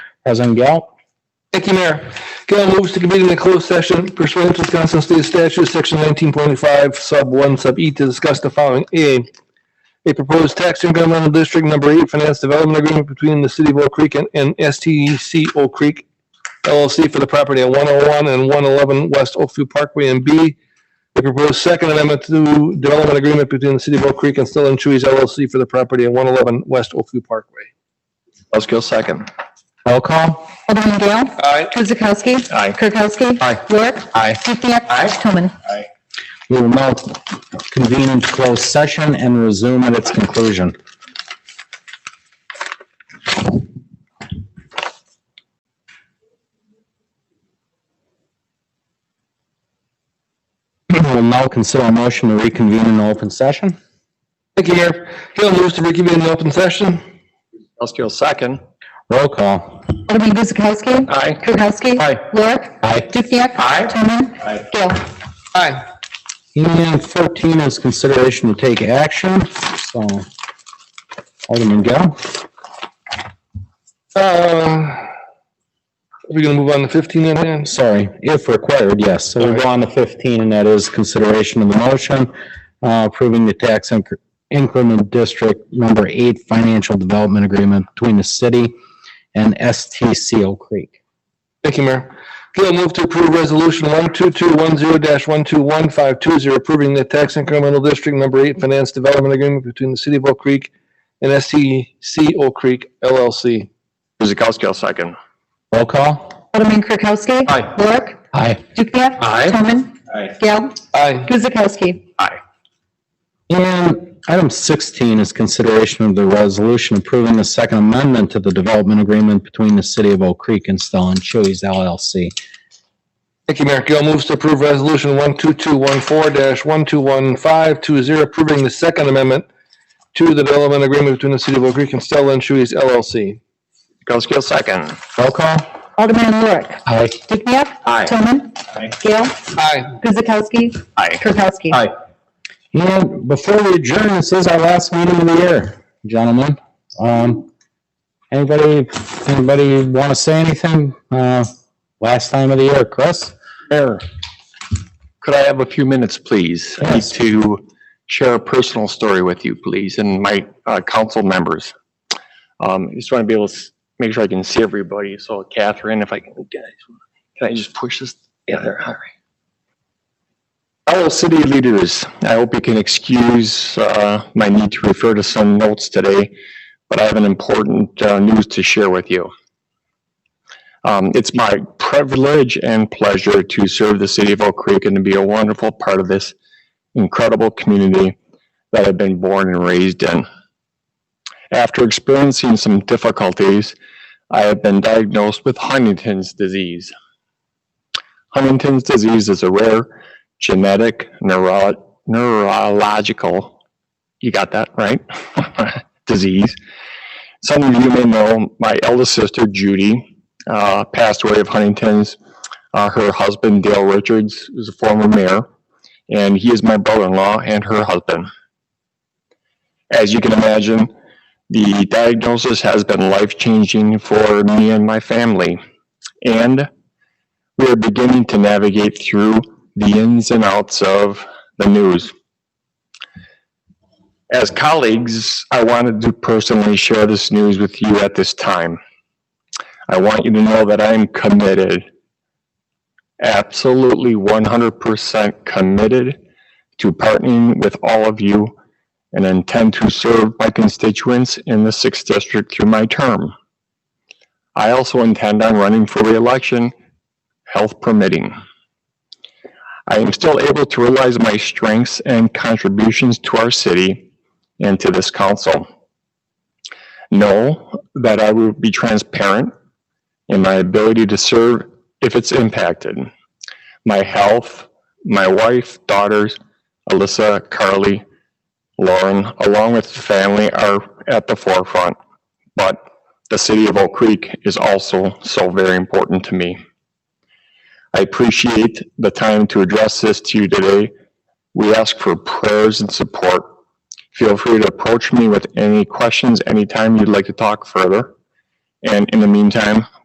President Gale, Thank you, Mayor. Gail moves to convene in a closed session pursuant to Wisconsin State Statute, Section 19.5, Sub 1, Sub E, to discuss the following. A, a proposed tax incremental district number eight finance development agreement between the City of Oak Creek and- and STC Oak Creek LLC for the property at 101 and 111 West Oakview Parkway. And B, a proposed second amendment to development agreement between the City of Oak Creek and Still and Chewy's LLC for the property at 111 West Oakview Parkway. Buzzkill second. roll call. Alderman Gale. Aye. Guzekowski. Aye. Kirkowski. Aye. Lorik. Aye. Dukenyak. Aye. Toman. We will now convene into closed session and resume at its conclusion. We will now consider a motion to reconvene in open session. Thank you, Mayor. Gail moves to reconvene in open session. Buzzkill second. Roll call. Alderman Guzekowski. Aye. Kirkowski. Aye. Lorik. Aye. Dukenyak. Aye. Toman. Aye. Gale. Aye. And 14 is consideration to take action, so Alderman Gale. Uh, Are we gonna move on to fifteen then, Dan? sorry, if required, yes. So we go on to 15, and that is consideration of the motion uh, approving the tax incre- increment district number eight financial development agreement between the city and STC Oak Creek. Thank you, Mayor. Gail move to approve resolution one two two one zero dash one two one five two zero approving the tax incremental district number eight finance development agreement between the city of Oak Creek and STC Oak Creek LLC. Guzekowski second. Roll call? Alderman Kirkowski. Aye. Lorik. Aye. Dukenyak. Aye. Toman. Aye. Gale. Aye. Guzekowski. Aye. And item 16 is consideration of the resolution approving the second amendment to the development agreement between the city of Oak Creek and Stellon Chewy's LLC. Thank you, Mayor. Gail moves to approve resolution one two two one four dash one two one five two zero approving the second amendment to the development agreement between the city of Oak Creek and Stella and Shoe's LLC. Guzekowski second. Roll call? Alderman Lorik. Aye. Dukenyak. Aye. Toman. Aye. Gale. Aye. Guzekowski. Aye. Kirkowski. Aye. And before we adjourn, this is our last meeting of the year, gentlemen. Um, anybody, anybody want to say anything? Uh, last time of the year, Chris? Sure. Could I have a few minutes, please? I need Yes. to share a personal story with you, please, and my uh, council members. Um, I just want to be able to s- make sure I can see everybody. So Catherine, if I can, can I just push this? Yeah, there, all right. Fellow city leaders, I hope you can excuse uh, my need to refer to some notes today, but I have an important uh, news to share with you. Um, it's my privilege and pleasure to serve the city of Oak Creek and to be a wonderful part of this incredible community that I've been born and raised in. After experiencing some difficulties, I have been diagnosed with Huntington's disease. Huntington's disease is a rare genetic neuro- neurological, you got that right? disease. Some of you may know my eldest sister, Judy, uh, passed away of Huntington's. Uh, her husband, Dale Richards, is a former mayor, and he is my brother-in-law and her husband. As you can imagine, the diagnosis has been life-changing for me and my family, and we are beginning to navigate through the ins and outs of the news. As colleagues, I wanted to personally share this news with you at this time. I want you to know that I am committed, absolutely 100% committed to partnering with all of you and intend to serve my constituents in the 6th District through my term. I also intend on running for reelection, health permitting. I am still able to realize my strengths and contributions to our city and to this council. Know that I will be transparent and my ability to serve if it's impacted. My health, my wife, daughters, Alyssa, Carly, Lauren, along with the family are at the forefront. But the city of Oak Creek is also so very important to me. I appreciate the time to address this to you today. We ask for prayers and support. Feel free to approach me with any questions anytime you'd like to talk further. And in the meantime,